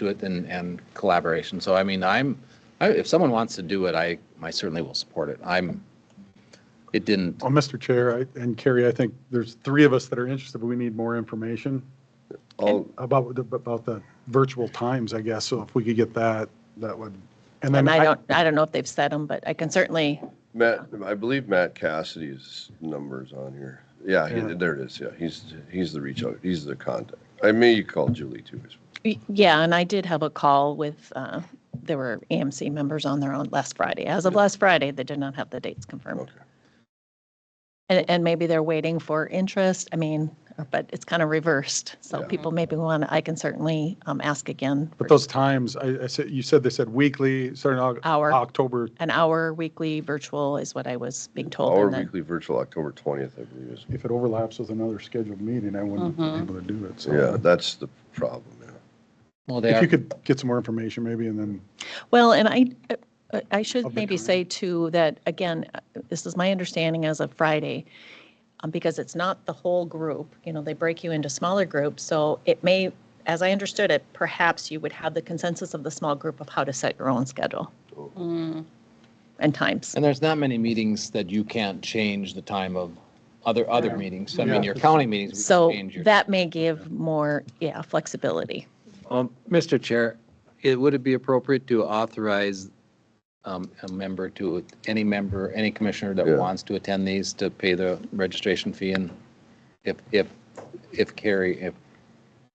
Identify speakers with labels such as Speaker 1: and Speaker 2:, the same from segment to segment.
Speaker 1: do it and, and collaboration. So I mean, I'm, I, if someone wants to do it, I, I certainly will support it. I'm, it didn't,
Speaker 2: Well, Mr. Oh, Chair I- and Carrie, I think there's three of us that are interested, but we need more information
Speaker 3: All,
Speaker 2: about, the- about the virtual times, I guess. So if we could get that, that would, and then
Speaker 4: And I
Speaker 2: I,
Speaker 4: don't, I don't know if they've said them, but I can certainly,
Speaker 3: Matt, I believe Matt Cassidy's number's on here. Yeah, he- there it is, yeah, he's, he's the reach out, he's the contact. I may you call Julie too. as well.
Speaker 4: yeah, and I did have a call with, uh, there were AMC members on their own last Friday. As of last Friday, they did not have the dates confirmed.
Speaker 3: Okay.
Speaker 4: And, and maybe they're waiting for interest, I mean, but it's kind of reversed. So
Speaker 3: Yeah.
Speaker 4: people maybe want, I can certainly um, ask again.
Speaker 2: but
Speaker 4: for
Speaker 2: those times, I, I said, you said they said weekly, starting Au-
Speaker 4: Hour.
Speaker 2: October.
Speaker 4: An hour weekly virtual is what I was being told.
Speaker 3: Our
Speaker 4: and then-
Speaker 3: weekly virtual, October 20th, I believe is,
Speaker 2: If it overlaps with another scheduled meeting, I wouldn't be
Speaker 4: Mm-hmm.
Speaker 2: able to do it. So
Speaker 3: yeah, that's the problem, yeah.
Speaker 1: well, they
Speaker 2: If
Speaker 1: are,
Speaker 2: you could get some more information maybe and then,
Speaker 4: Well, and I, uh, I
Speaker 2: Of
Speaker 4: should
Speaker 2: the
Speaker 4: maybe
Speaker 2: time.
Speaker 4: say too that, again, uh, this is my understanding as of Friday, um, because it's not the whole group, you know, they break you into smaller groups. So it may, as I understood it, perhaps you would have the consensus of the small group of how to set your own schedule and times.
Speaker 1: and there's not many meetings that you can't change the time of other, other meetings. I mean,
Speaker 2: Yeah.
Speaker 1: your county meetings. we can
Speaker 4: So
Speaker 1: change your-
Speaker 4: that may give more, yeah, flexibility.
Speaker 5: Um, Mr. Chair, it, would it be appropriate to authorize
Speaker 1: um, A member to, any member, any commissioner that
Speaker 3: Yeah.
Speaker 1: wants to attend these to pay the registration fee and if, if, if Carrie, if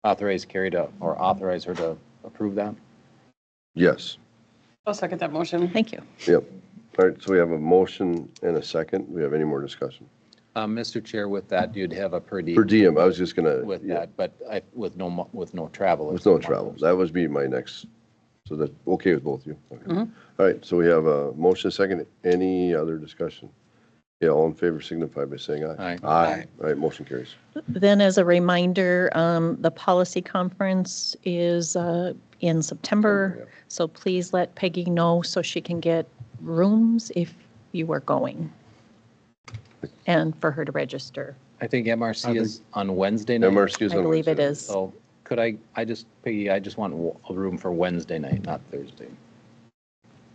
Speaker 1: authorize Carrie to, or authorize her to approve that?
Speaker 3: Yes,
Speaker 6: I'll second that motion.
Speaker 4: Thank you.
Speaker 3: yep. All right, so we have a motion and a second. We have any more discussion?
Speaker 1: Uh, Mr. Chair, with that, you'd have a per diem
Speaker 3: Per diem, I was just gonna,
Speaker 1: with
Speaker 3: yeah,
Speaker 1: that, but I, with no, mo- with no travel.
Speaker 3: with no travel. That was be my next, so that, okay with both of you? Okay.
Speaker 6: Mhm.
Speaker 3: All right, so we have a motion, a second. Any other discussion? Yeah, all in favor signify by saying aye.
Speaker 1: Aye.
Speaker 3: Aye. All right, motion carries.
Speaker 4: Then as a reminder, um, the policy conference is, uh, in September. So please let Peggy know so she can get rooms if you are going. And for her to register.
Speaker 1: I think MRC is on Wednesday night.
Speaker 3: MRC is
Speaker 4: I
Speaker 3: on
Speaker 4: believe it
Speaker 3: Wednesday.
Speaker 4: is.
Speaker 1: So could I, I just, Peggy, I just want w- a room for Wednesday night, not Thursday.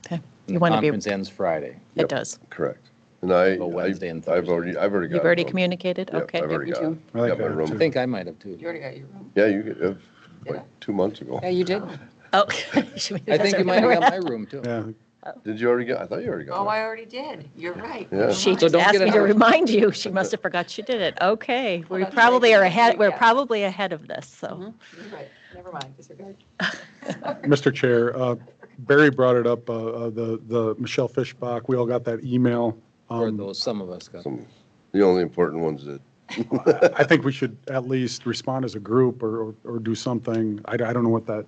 Speaker 4: Okay. You want to
Speaker 1: Conference
Speaker 4: be,
Speaker 1: ends Friday.
Speaker 4: it does.
Speaker 3: Correct. And I,
Speaker 1: Go
Speaker 3: I-
Speaker 1: Wednesday and
Speaker 3: I've already, I've already got.
Speaker 4: You've
Speaker 3: it,
Speaker 4: already
Speaker 3: Rob.
Speaker 4: communicated?
Speaker 3: Yep,
Speaker 4: Okay.
Speaker 3: I've already
Speaker 6: Me
Speaker 3: got,
Speaker 6: too.
Speaker 3: it.
Speaker 2: I like
Speaker 3: got my
Speaker 2: that,
Speaker 1: I
Speaker 3: room.
Speaker 1: think I might have too.
Speaker 6: You already got your room.
Speaker 3: Yeah, you, could- uh,
Speaker 6: Yeah.
Speaker 3: like, two months ago.
Speaker 6: Yeah, you did.
Speaker 4: Oh.
Speaker 1: I think you might have got my room too.
Speaker 2: yeah,
Speaker 3: Did you already get, I thought you already got
Speaker 6: Oh,
Speaker 3: one.
Speaker 6: I already did. You're right.
Speaker 3: Yeah.
Speaker 4: She
Speaker 1: So
Speaker 4: just
Speaker 1: don't
Speaker 4: asked
Speaker 1: get
Speaker 4: me to
Speaker 1: another-
Speaker 4: remind you. She must have forgot she did it. Okay. We
Speaker 6: that's right.
Speaker 4: probably are ahead, we're
Speaker 6: Yeah.
Speaker 4: probably ahead of this, so.
Speaker 6: Mhm. You're right. Never mind, disregard.
Speaker 2: Mr. Chair, uh, Barry brought it up, uh, uh, the, the Michelle Fishbach, we all got that email.
Speaker 1: Or
Speaker 2: Um,
Speaker 1: those, some of us got.
Speaker 3: Some- The only important ones that,
Speaker 2: I think we should at least respond as a group or, or- or do something. I, I don't know what that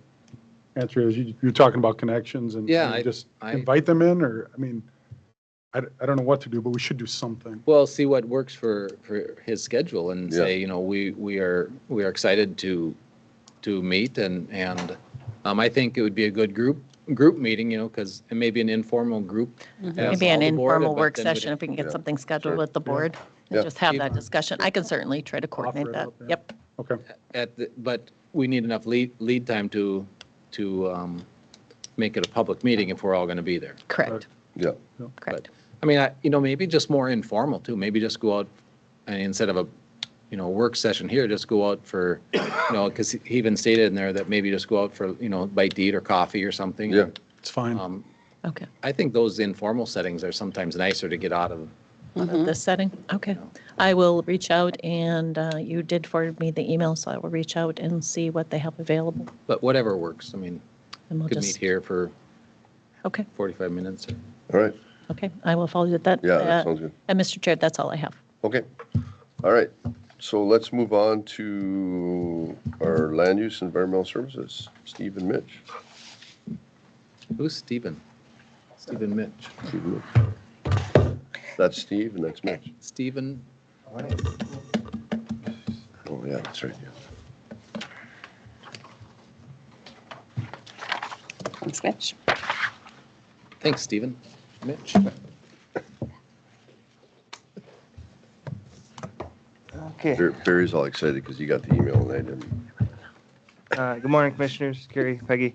Speaker 2: answer is. You, you're talking about connections and
Speaker 1: Yeah,
Speaker 2: and
Speaker 1: I-
Speaker 2: just
Speaker 1: I-
Speaker 2: invite them in or, I mean, I, d- I don't know what to do, but we should do something.
Speaker 1: Well, see what works for, for his schedule and
Speaker 3: Yeah.
Speaker 1: say, you know, we, we are, we are excited to, to meet and, and um, I think it would be a good group, group meeting, you know, because it may be an informal group. as
Speaker 4: Maybe an
Speaker 1: all the board,
Speaker 4: informal
Speaker 1: but
Speaker 4: work
Speaker 1: then we'd-
Speaker 4: session if we can
Speaker 3: Yeah,
Speaker 4: get something scheduled
Speaker 3: sure.
Speaker 4: with the board. and
Speaker 3: Yeah. uh,
Speaker 4: Just have
Speaker 1: Keep-
Speaker 4: that discussion. I can certainly try to coordinate
Speaker 2: it
Speaker 4: that.
Speaker 2: out there.
Speaker 4: Yep.
Speaker 2: Okay.
Speaker 1: At, the- but we need enough lead, lead time to, to um, make it a public meeting if we're all going to be there.
Speaker 4: Correct,
Speaker 3: yeah,
Speaker 4: correct.
Speaker 1: I mean, I, you know, maybe just more informal too, maybe just go out, and instead of a, you know, work session here, just go out for, you know, because he even stated in there that maybe just go out for, you know, bite to eat or coffee or something.
Speaker 3: yeah.
Speaker 2: It's fine.
Speaker 1: Um,
Speaker 4: Okay.
Speaker 1: I think those informal settings are sometimes nicer to get out of.
Speaker 4: This setting, okay. I will reach out and uh, you did forward me the email, so I will reach out and see what they have available.
Speaker 1: But whatever works, I mean,
Speaker 4: And we'll
Speaker 1: could meet
Speaker 4: just,
Speaker 1: here for
Speaker 4: okay,
Speaker 1: 45 minutes. or-
Speaker 3: All right,
Speaker 4: okay. I will follow you with that.
Speaker 3: yeah,
Speaker 4: Uh,
Speaker 3: that sounds good.
Speaker 4: And Mr. Chair, that's all I have.
Speaker 3: Okay, all right. So let's move on to our land use and environmental services, Steve and Mitch.
Speaker 1: Who's Stephen? Stephen Mitch.
Speaker 3: Steve and Mitch. That's Steve and that's Mitch.
Speaker 1: Stephen,
Speaker 3: Oh, yeah, that's right, yeah.
Speaker 6: Thanks, Mitch.
Speaker 1: thanks, Stephen. Mitch.
Speaker 7: Okay,
Speaker 3: Bar- Barry's all excited because he got the email and I didn't.
Speaker 7: uh, good morning, Commissioners, Kerry, Peggy.